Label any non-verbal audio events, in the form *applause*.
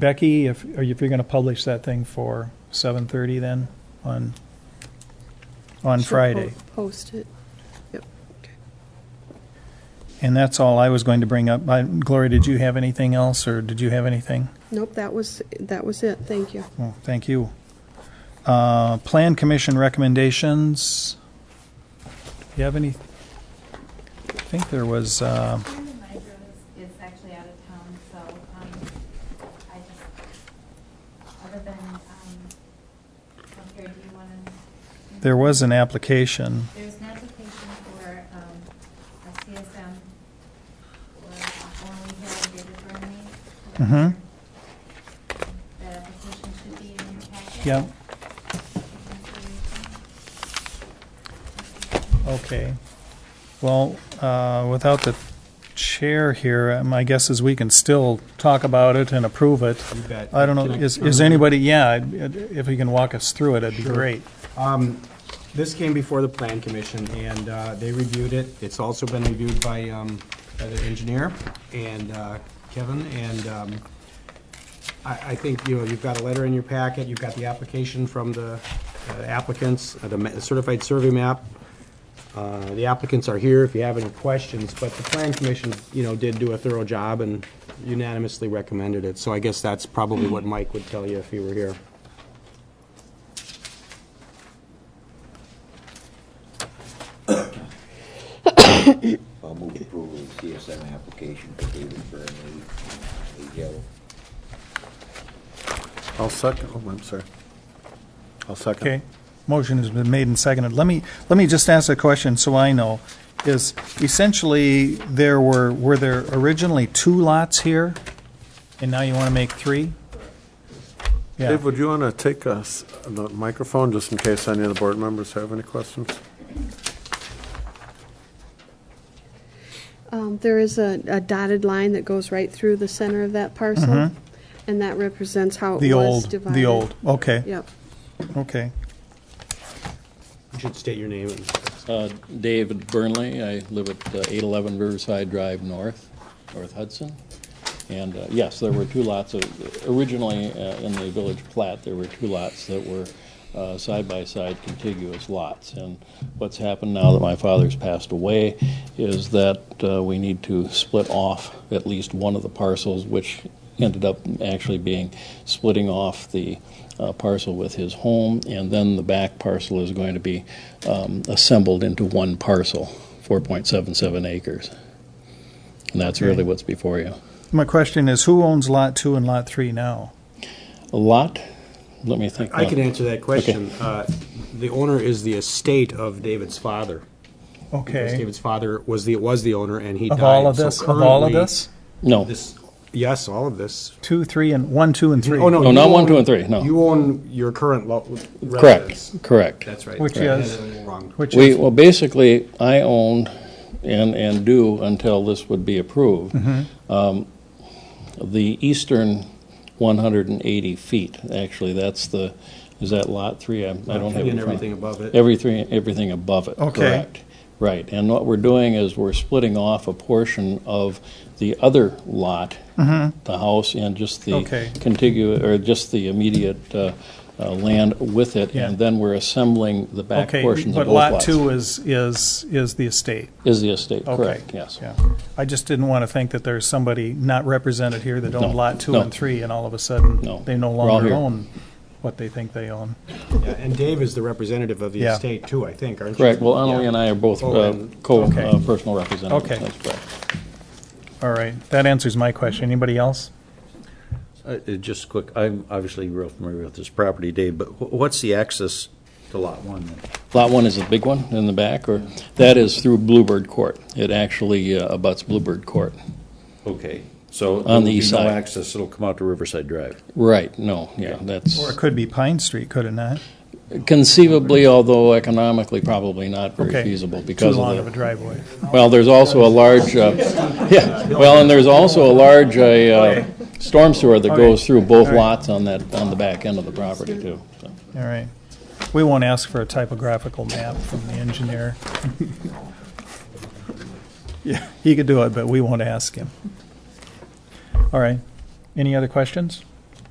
Becky, if, are you- if you're going to publish that thing for 7:30 then on, on Should Friday? po- Post it. Yep. Okay. And that's all I was going to bring up. I- Gloria, did you have anything else, or did you have anything? Nope, that was, that was it. Thank you. Well, thank you. Uh, Plan Commission recommendations. Do you have any? I think there was, uh, Brandon Nigro is- is actually out of town, so um, I just, other than, um, here, do you want to? there was an application. There's an application for um, a CSM, or formerly Data Burnley. Mhm. That application should be in your packet. Yep, okay. Well, uh, without the chair here, uh, my guess is we can still talk about it and approve it. You bet. I don't know, Can I- is, is anybody, yeah, I'd- if you can walk us through it, it'd be Sure. great. Um, This came before the Plan Commission, and uh, they reviewed it. It's also been reviewed by um, by the engineer and uh, Kevin, and um, I I think, you know, you've got a letter in your packet, you've got the application from the uh, applicants, uh, the ma- certified survey map. Uh, The applicants are here if you have any questions, but the Plan Commission, you know, did do a thorough job and unanimously recommended it. So I guess that's probably what Mike would tell you if he were here. I'll move approval of the CSM application for David Burnley, AGL. I'll second, oh, I'm sorry. I'll second. Okay, motion has been made and seconded. Let me, let me just ask a question so I know. Is essentially, there were, were there originally two lots here? And now you want to make three? Yeah, Dave, would you want to take us the microphone, just in case any of the board members have any questions? Um, There is a a dotted line that goes right through the center of that parcel, and that represents how it Mm-hmm. the was old, divided. the old, okay, Yep. okay. You should state your name and Uh, David Burnley, I live at uh, 811 Riverside Drive North, North Hudson. And uh, yes, there were two lots of, originally uh, in the village plat, there were two lots that were uh, side-by-side contiguous lots. And what's happened now that my father's passed away is that uh, we need to split off at least one of the parcels, which ended up actually being splitting off the uh, parcel with his home, and then the back parcel is going to be um, assembled into one parcel, 4.77 acres. And that's really what's before you. My question is, who owns Lot 2 and Lot 3 now? A lot, let me think. I can now. answer that question. Uh, The owner is the estate of David's father. Because Okay, David's father was the, was the owner, and he died. of all of So this, of all of currently, this? No, this- yes, all of this. 2, 3, and 1, 2, and 3? Oh, no. No, not you one, own- two, and three, no. You own your current lo- relatives. correct, correct. That's right. Which I had is- it wrong. Which We, is, well, basically, I owned and, and do until this would be approved, Mm-hmm. um, the eastern 180 feet. Actually, that's the, is that lot three? I I don't have it in And front of- everything above it. Everything, everything above it. Okay. Correct. Right, and what we're doing is we're splitting off a portion of the other lot, the house and just the Mm-hmm. Okay. contiguous, or just the immediate uh, uh, land with it, Yeah. and then we're assembling the back okay, portions of but both lots. Lot 2 is, is, is the estate? Is the estate, Okay. correct, yes. Yeah. I just didn't want to think that there's somebody not represented here that owned No, Lot 2 no. and 3, and all of a sudden, No, they no we're all longer here. own what they think they own. Yeah, And Dave is the representative of the Yeah. estate too, I think, aren't you? Correct, well, Annalee and I are both Oh, uh, and- co, Okay. uh, personal representatives. Okay. That's correct. All right, that answers my question. Anybody else? Uh, uh, Just quick, I'm obviously real familiar with this property, Dave, but wh- what's the access to Lot 1 then? Lot one is the big one in the back, or, that is through Bluebird Court. It actually uh, abuts Bluebird Court. Okay, On so. the there'll be east No side. access, it'll come out to Riverside Drive. Right, no, Or yeah, it that's could be Pine Street, could it not? conceivably, although economically probably not very Okay. feasible Too because long of of a the, driveway. well, there's also a large, uh, *laughs* yeah, well, and there's also a large uh, uh, storm sewer that goes through both lots on that, on the back end of the property too. so. All right. We won't ask for a typographical map from the engineer. Yeah, he could do it, but we won't ask him. All right. Any other questions?